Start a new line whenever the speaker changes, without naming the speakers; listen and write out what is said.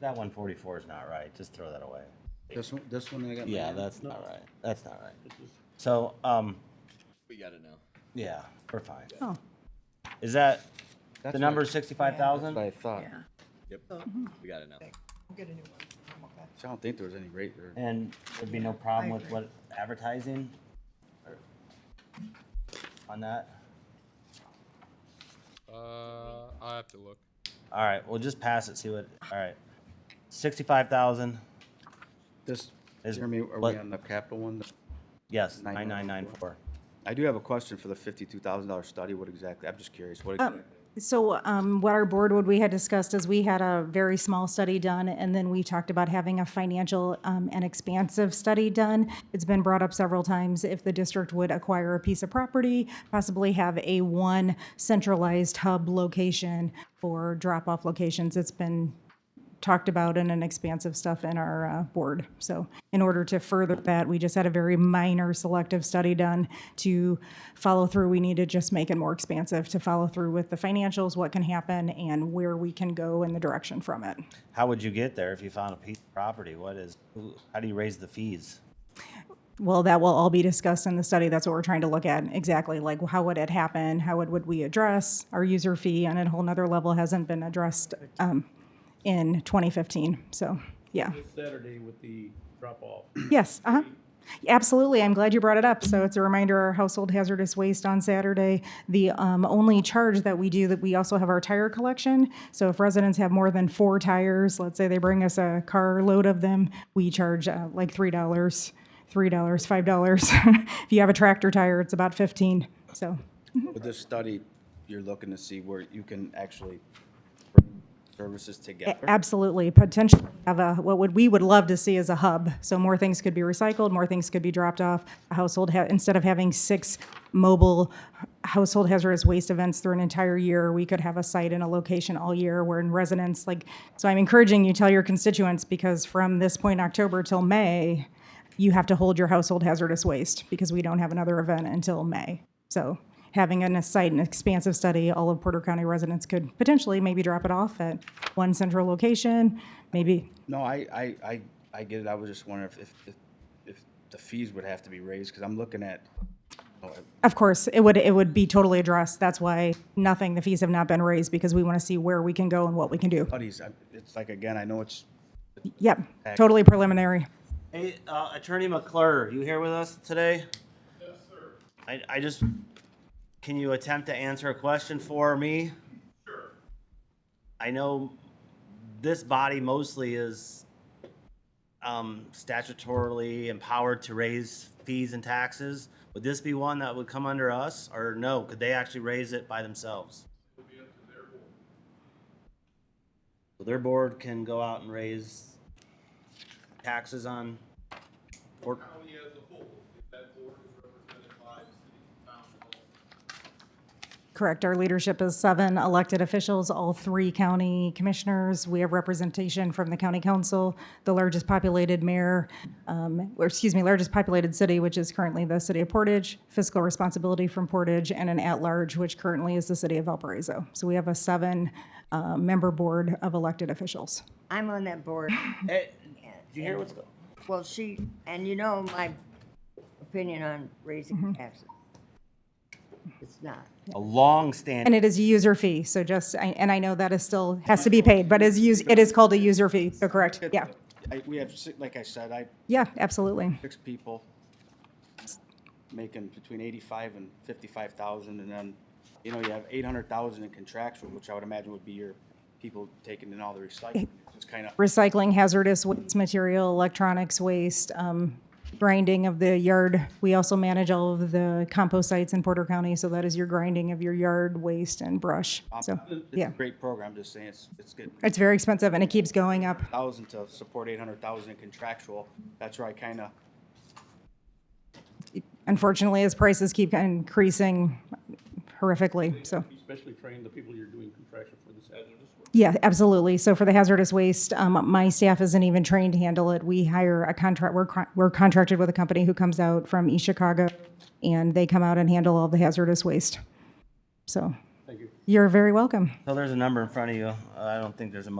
That one forty-four is not right. Just throw that away.
This one, this one I got. in my
Yeah,
hand?
that's not right. That's not right. So, um,
We got it now.
yeah, we're fine.
Oh,
Is that,
That's
the
what
number
I-
is sixty-five thousand?
That's what I thought.
yeah.
Yep, we got it now.
We'll get a new one. Okay.
So I don't think there was any rate there.
And there'd be no problem
I
with
agree.
what, advertising? Or- On that?
Uh, I have to look.
All right, we'll just pass it, see what, all right. Sixty-five thousand,
This,
Is-
Jeremy, are
what-
we on the capital one?
yes, nine nine nine
9994.
four.
I do have a question for the fifty-two thousand dollar study. What exactly? I'm just curious. What? exactly-
So um, what our board, what we had discussed is we had a very small study done, and then we talked about having a financial um, and expansive study done. It's been brought up several times if the district would acquire a piece of property, possibly have a one centralized hub location for drop-off locations. It's been talked about in an expansive stuff in our uh, board. So in order to further that, we just had a very minor selective study done to follow through. We need to just make it more expansive to follow through with the financials, what can happen, and where we can go in the direction from it.
How would you get there if you found a piece of property? What is, who- how do you raise the fees?
Well, that will all be discussed in the study. That's what we're trying to look at exactly. Like, how would it happen? How would, would we address our user fee on a whole nother level hasn't been addressed um, in 2015. So, yeah.
this Saturday with the drop-off.
Yes, uh-huh. Absolutely. I'm glad you brought it up. So it's a reminder, our household hazardous waste on Saturday. The um, only charge that we do, that we also have our tire collection. So if residents have more than four tires, let's say they bring us a car load of them, we charge uh, like three dollars, three dollars, five dollars. If you have a tractor tire, it's about fifteen, so.
With this study, you're looking to see where you can actually bring services together.
Absolutely, potentially have a, what would, we would love to see is a hub. So more things could be recycled, more things could be dropped off. A household, ha- instead of having six mobile household hazardous waste events through an entire year, we could have a site and a location all year where in residents, like, so I'm encouraging you, tell your constituents, because from this point, October till May, you have to hold your household hazardous waste because we don't have another event until May. So having an- a site and expansive study, all of Porter County residents could potentially maybe drop it off at one central location, maybe,
No, I, I, I, I get it. I was just wondering if, if, if the fees would have to be raised, because I'm looking at, oh,
of course, it would, it would be totally addressed. That's why nothing, the fees have not been raised because we want to see where we can go and what we can do.
studies, I- it's like, again, I know it's,
Yep, totally preliminary.
Hey, uh, Attorney McClure, you here with us today? Yes, sir. I, I just, can you attempt to answer a question for me? Sure. I know this body mostly is, um, statutorily empowered to raise fees and taxes. Would this be one that would come under us, or no, could they actually raise it by themselves? So Their board can go out and raise taxes on, or,
County as a whole, if that board is represented by the city council.
Correct. Our leadership is seven elected officials, all three county commissioners. We have representation from the county council, the largest populated mayor, um, or excuse me, largest populated city, which is currently the city of Portage, fiscal responsibility from Portage, and an at-large, which currently is the city of Valparaiso. So we have a seven-member board of elected officials.
I'm on that board.
Hey, did you hear what's going?
Well, she, and you know my opinion on
Mm-hmm.
raising taxes. It's not.
A long
And
standing.
it is a user fee, so just, I- and I know that is still, has to be paid, but is use, it is called a user fee, so correct, yeah.
I, we have, si- like I said, I,
Yeah, absolutely.
six people making between eighty-five and fifty-five thousand, and then, you know, you have eight hundred thousand in contractual, which I would imagine would be your people taking in all the recycling. It's kind of,
recycling hazardous waste material, electronics waste, um, grinding of the yard. We also manage all of the compost sites in Porter County, so that is your grinding of your yard waste and brush. So,
it's
yeah,
a great program, just saying, it's, it's good.
it's very expensive and it keeps going up.
Thousand to support eight hundred thousand in contractual, that's where I kind of,
Unfortunately, as prices keep increasing horrifically, so.
Especially train the people you're doing contraction for this hazardous work.
Yeah, absolutely. So for the hazardous waste, um, my staff isn't even trained to handle it. We hire a contract, we're, con- we're contracted with a company who comes out from East Chicago and they come out and handle all the hazardous waste. So. Thank you. You're very welcome.
So there's a number in front of you. I don't think there's a